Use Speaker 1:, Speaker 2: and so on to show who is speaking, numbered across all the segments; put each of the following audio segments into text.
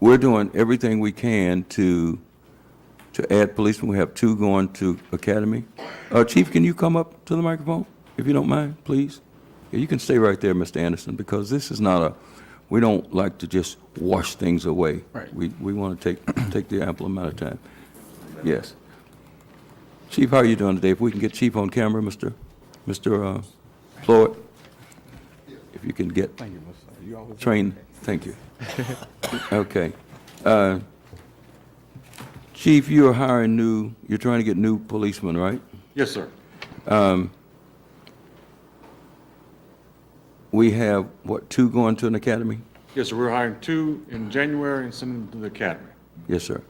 Speaker 1: we're doing everything we can to, to add policemen. We have two going to academy. Uh, Chief, can you come up to the microphone, if you don't mind, please? Yeah, You can stay right there, Mr. Anderson, because this is not a, we don't like to just wash things away.
Speaker 2: Right.
Speaker 1: We, we want to take, take the ample amount of time. Yes. Chief, how are you doing today? If we can get Chief on camera, Mr. Mr. uh, Floyd? If you can get trained, thank you. Okay. Uh, Chief, you're hiring new, you're trying to get new policemen, right?
Speaker 2: Yes, sir.
Speaker 1: We have, what, two going to an academy?
Speaker 2: Yes, sir. We're hiring two in January and sending them to the academy.
Speaker 1: Yes, sir.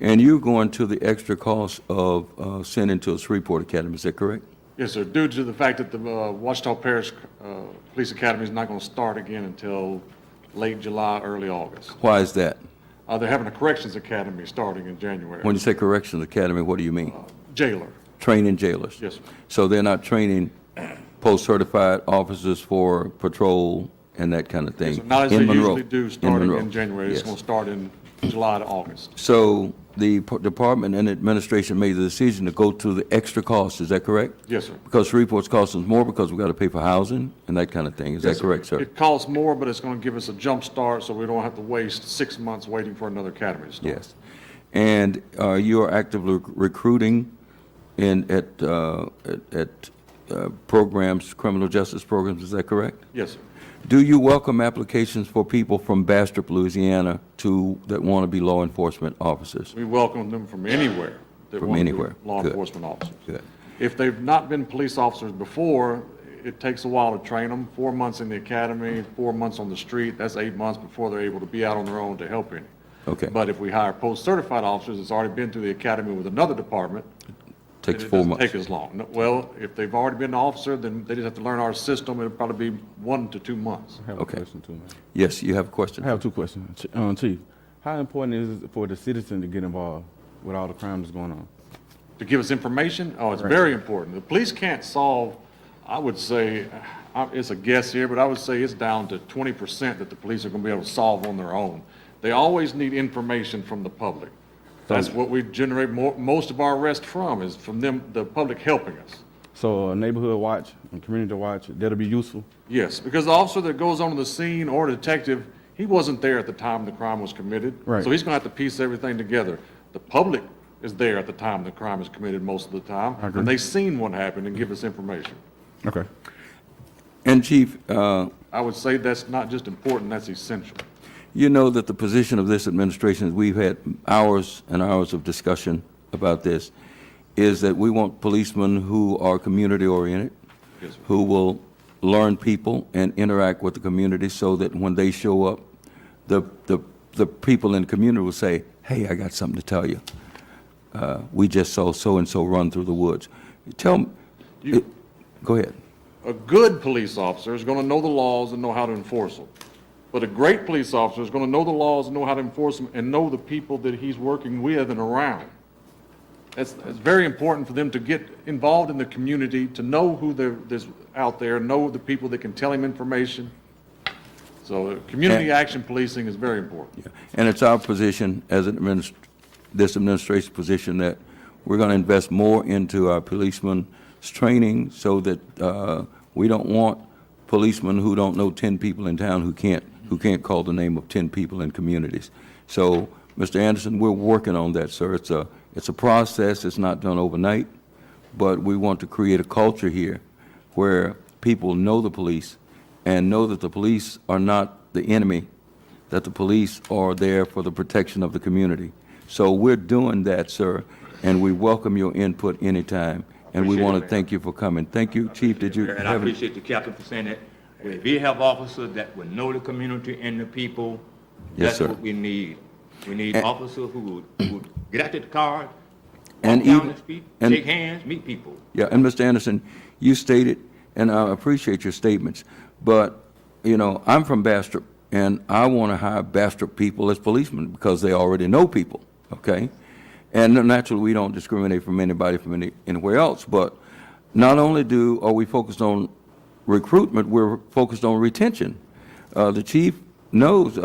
Speaker 1: And you're going to the extra cost of uh, sending to a Shreveport Academy, is that correct?
Speaker 2: Yes, sir. Due to the fact that the uh, Wachita Parish uh, Police Academy is not going to start again until late July, early August.
Speaker 1: Why is that?
Speaker 2: Uh, They're having a corrections academy starting in
Speaker 1: When
Speaker 2: January.
Speaker 1: you say corrections academy, what do you mean?
Speaker 2: Jailer.
Speaker 1: Training jailers?
Speaker 2: Yes, sir.
Speaker 1: So they're not training post-certified officers for patrol and that kind of thing?
Speaker 2: So Not as
Speaker 1: in
Speaker 2: they
Speaker 1: Monroe-
Speaker 2: usually do, starting
Speaker 1: Monroe.
Speaker 2: in January. It's
Speaker 1: Yes.
Speaker 2: going to start in July to August.
Speaker 1: So the p- department and administration made the decision to go to the extra cost, is that correct?
Speaker 2: Yes, sir.
Speaker 1: Because Shreveport's costing us more because we got to pay for housing and that kind of thing, is that correct, sir?
Speaker 2: It costs more, but it's going to give us a jump start so we don't have to waste six months waiting for another academy to start.
Speaker 1: Yes. And uh, you are actively recruiting in, at, uh, at- at uh, programs, criminal justice programs, is that correct?
Speaker 2: Yes, sir.
Speaker 1: Do you welcome applications for people from Bastrop, Louisiana to, that want to be law enforcement officers?
Speaker 2: We welcome them from anywhere. that
Speaker 1: From
Speaker 2: want to be
Speaker 1: anywhere.
Speaker 2: Law
Speaker 1: Good.
Speaker 2: enforcement officers.
Speaker 1: Good.
Speaker 2: If they've not been police officers before, it takes a while to train them, four months in the academy, four months on the street, that's eight months before they're able to be out on their own to help any.
Speaker 1: Okay.
Speaker 2: But if we hire post-certified officers that's already been through the academy with another department, then
Speaker 1: Takes
Speaker 2: it
Speaker 1: four
Speaker 2: doesn't
Speaker 1: months.
Speaker 2: take as long. No- Well, if they've already been an officer, then they just have to learn our system, it'll probably be one to two months.
Speaker 3: I have
Speaker 1: Okay.
Speaker 3: a question too, man.
Speaker 1: Yes, you have a
Speaker 3: I
Speaker 1: question?
Speaker 3: have two questions, Ch- um, Chief. How important is it for the citizen to get involved with all the crimes that's going on?
Speaker 2: to give us information? Oh, it's very important. The police can't solve, I would say, I- it's a guess here, but I would say it's down to twenty percent that the police are gonna be able to solve on their own. They always need information from the public. That's what we generate more, most of our arrests from, is from them, the public helping us.
Speaker 3: So a neighborhood watch and community watch, that'll be useful.
Speaker 2: Yes, because the officer that goes onto the scene or detective, he wasn't there at the time the crime was committed.
Speaker 3: Right.
Speaker 2: So he's gonna have to piece everything together. The public is there at the time the crime is committed most of the time.
Speaker 3: I agree.
Speaker 2: And they've seen what happened and give us information.
Speaker 3: Okay.
Speaker 1: And Chief, uh,
Speaker 2: I would say that's not just important, that's essential.
Speaker 1: You know that the position of this administration, is we've had hours and hours of discussion about this, is that we want policemen who are community-oriented,
Speaker 2: Yes, sir.
Speaker 1: who will learn people and interact with the community so that when they show up, the, the, the people in the community will say, hey, I got something to tell you. Uh, We just saw so-and-so run through the woods. Tell, m- it- go ahead.
Speaker 2: A good police officer is going to know the laws and know how to enforce them. But a great police officer is going to know the laws and know how to enforce them and know the people that he's working with and around. It's, it's very important for them to get involved in the community, to know who there- there's out there, know the people that can tell him information. So uh, community action policing is very important.
Speaker 1: And it's our position as an adminis, this administration's position that we're going to invest more into our policemen's training so that, uh, we don't want policemen who don't know ten people in town who can't, who can't call the name of ten people in communities. So, Mr. Anderson, we're working on that, sir. It's a, it's a process. It's not done overnight. But we want to create a culture here where people know the police and know that the police are not the enemy, that the police are there for the protection of the community. So we're doing that, sir, and we welcome your input anytime. And we
Speaker 4: Appreciate it,
Speaker 1: want to
Speaker 4: Mayor.
Speaker 1: thank you for coming. Thank you, Chief. Did you
Speaker 4: And I
Speaker 1: have, any-
Speaker 4: appreciate the captain for saying that. If we have officers that will know the community and the people,
Speaker 1: Yes,
Speaker 4: that's
Speaker 1: sir.
Speaker 4: what we need. We need officers who would, who would get out of the car,
Speaker 1: And
Speaker 4: walk down
Speaker 1: even-
Speaker 4: the street,
Speaker 1: and-
Speaker 4: shake hands, meet people.
Speaker 1: yeah, and Mr. Anderson, you stated, and I appreciate your statements, but, you know, I'm from Bastrop, and I want to hire Bastrop people as policemen because they already know people, okay? And naturally, we don't discriminate from anybody from any, anywhere else, but not only do, are we focused on recruitment, we're focused on retention. Uh, the chief knows